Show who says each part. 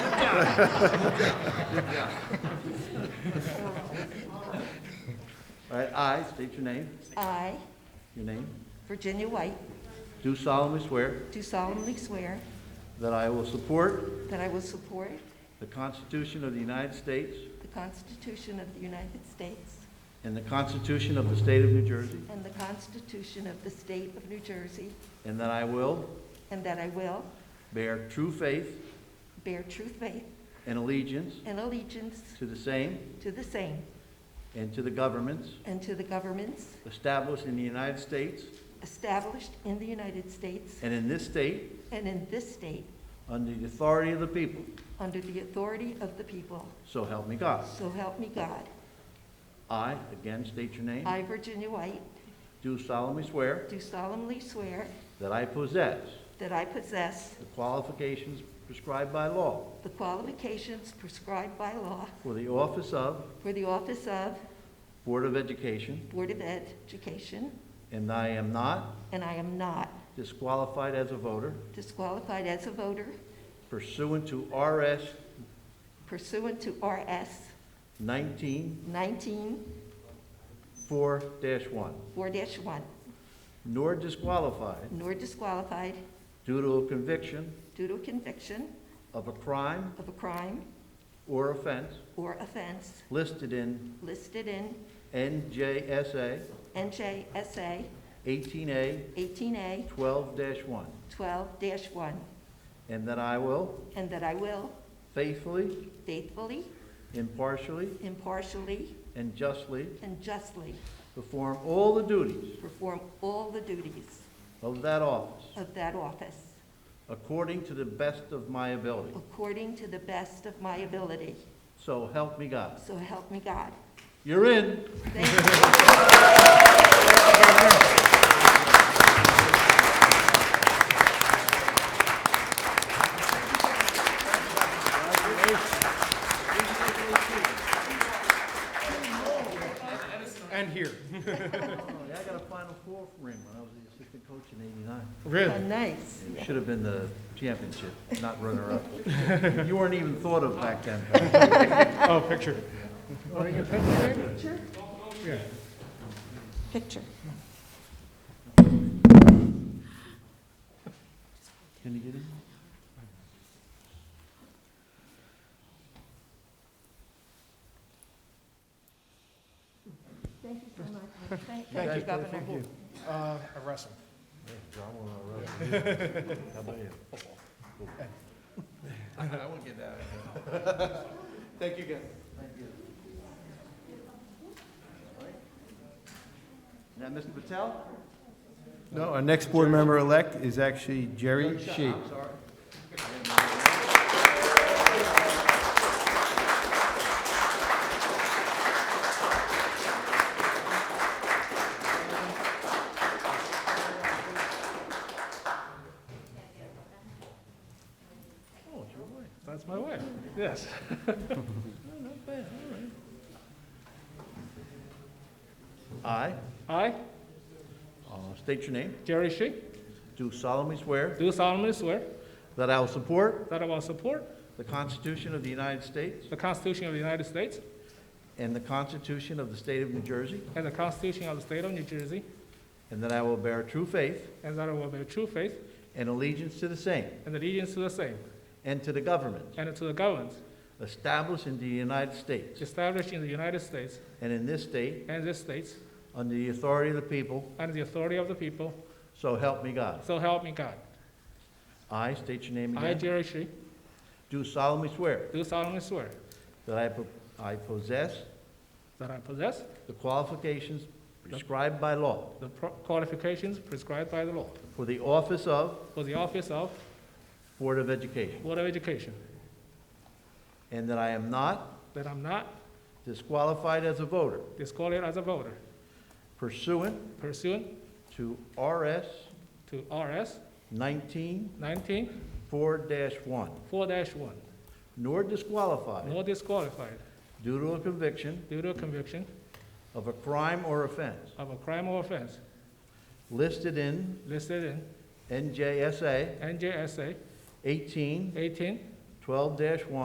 Speaker 1: All right, I state your name,
Speaker 2: I,
Speaker 1: your name.
Speaker 2: Virginia White,
Speaker 1: Do solemnly swear
Speaker 2: do solemnly swear
Speaker 1: that I will support
Speaker 2: that I will support
Speaker 1: the Constitution of the United States
Speaker 2: the Constitution of the United States
Speaker 1: and the Constitution of the State of New Jersey,
Speaker 2: and the Constitution of the State of New Jersey,
Speaker 1: and that I will
Speaker 2: and that I will
Speaker 1: bear true faith
Speaker 2: bear true faith
Speaker 1: and allegiance
Speaker 2: and allegiance
Speaker 1: to the same
Speaker 2: to the same
Speaker 1: and to the governments
Speaker 2: and to the governments
Speaker 1: established in the United States
Speaker 2: established in the United States
Speaker 1: and in this state
Speaker 2: and in this state
Speaker 1: under the authority of the people.
Speaker 2: under the authority of the people.
Speaker 1: So help me God.
Speaker 2: So help me God.
Speaker 1: I, again state your name,
Speaker 2: I, Virginia White,
Speaker 1: do solemnly swear
Speaker 2: do solemnly swear
Speaker 1: that I possess
Speaker 2: that I possess
Speaker 1: the qualifications prescribed by law
Speaker 2: the qualifications prescribed by law
Speaker 1: for the office of
Speaker 2: for the office of
Speaker 1: Board of Education,
Speaker 2: Board of Education,
Speaker 1: and that I am not
Speaker 2: and I am not
Speaker 1: disqualified as a voter
Speaker 2: disqualified as a voter
Speaker 1: pursuant to RS
Speaker 2: pursuant to RS
Speaker 1: 19-4-1,
Speaker 2: 19-4-1,
Speaker 1: nor disqualified
Speaker 2: nor disqualified
Speaker 1: due to a conviction
Speaker 2: due to conviction
Speaker 1: of a crime
Speaker 2: of a crime
Speaker 1: or offense
Speaker 2: or offense
Speaker 1: listed in
Speaker 2: listed in
Speaker 1: NJSA
Speaker 2: NJSA
Speaker 1: 18A
Speaker 2: 18A
Speaker 1: 12-1,
Speaker 2: 12-1,
Speaker 1: and that I will
Speaker 2: and that I will
Speaker 1: faithfully,
Speaker 2: faithfully,
Speaker 1: impartially,
Speaker 2: impartially,
Speaker 1: and justly
Speaker 2: and justly
Speaker 1: perform all the duties
Speaker 2: perform all the duties
Speaker 1: of that office
Speaker 2: of that office
Speaker 1: according to the best of my ability.
Speaker 2: according to the best of my ability.
Speaker 1: So help me God.
Speaker 2: So help me God.
Speaker 1: You're in.
Speaker 2: Thank you.
Speaker 3: And here.
Speaker 1: Oh, I got a Final Four ring when I was the assistant coach in '89.
Speaker 2: Oh,
Speaker 3: Really?
Speaker 2: Nice.
Speaker 1: You should have been the championship, not runner-up. You weren't even thought of back then.
Speaker 3: Oh, picture.
Speaker 2: Picture?
Speaker 3: Yeah.
Speaker 2: Picture.
Speaker 1: Can you get in?
Speaker 2: Thank you so much. Thank you, Governor.
Speaker 3: Uh, I wrestle.
Speaker 1: How about you?
Speaker 4: I won't get that.
Speaker 3: Thank you, guys.
Speaker 1: Is that Mr. Patel?
Speaker 5: No, our next board member-elect is actually Jerry Shee.
Speaker 1: I'm sorry. Oh, it's your wife.
Speaker 3: That's my wife. Yes.
Speaker 1: Not bad, all right.
Speaker 3: I,
Speaker 1: I, uh, state your name,
Speaker 3: Jerry Shi,
Speaker 1: do solemnly swear
Speaker 3: do solemnly swear
Speaker 1: that I will support
Speaker 3: that I will support
Speaker 1: the Constitution of the United States
Speaker 3: the Constitution of the United States
Speaker 1: and the Constitution of the State of New Jersey,
Speaker 3: and the Constitution of the State of New Jersey,
Speaker 1: and that I will bear true faith
Speaker 3: and that I will bear true faith
Speaker 1: and allegiance to the same
Speaker 3: and allegiance to the same,
Speaker 1: and to the government
Speaker 3: and to the governments
Speaker 1: established in the United States
Speaker 3: established in the United States
Speaker 1: and in this state
Speaker 3: and this state,
Speaker 1: under the authority of the people,
Speaker 3: under the authority of the people,
Speaker 1: so help me God.
Speaker 3: so help me God.
Speaker 1: I state your name
Speaker 3: I,
Speaker 1: again.
Speaker 3: Jerry Shi,
Speaker 1: Do solemnly swear
Speaker 3: do solemnly swear
Speaker 1: that I po- I possess
Speaker 3: that I possess
Speaker 1: the qualifications prescribed by law
Speaker 3: the pro- qualifications prescribed by the law
Speaker 1: for the office of
Speaker 3: for the office of
Speaker 1: Board of Education,
Speaker 3: Board of Education,
Speaker 1: and that I am not
Speaker 3: that I'm not
Speaker 1: disqualified as a voter
Speaker 3: disqualified as a voter
Speaker 1: pursuant
Speaker 3: pursuant
Speaker 1: to RS
Speaker 3: to RS
Speaker 1: 19-4-1,
Speaker 3: 19 4-1,
Speaker 1: nor disqualified
Speaker 3: nor disqualified
Speaker 1: due to a conviction
Speaker 3: due to a conviction
Speaker 1: of a crime or offense
Speaker 3: of a crime or offense
Speaker 1: listed in
Speaker 3: listed
Speaker 1: NJSA
Speaker 3: in NJSA
Speaker 1: 18
Speaker 3: 18
Speaker 1: 12-1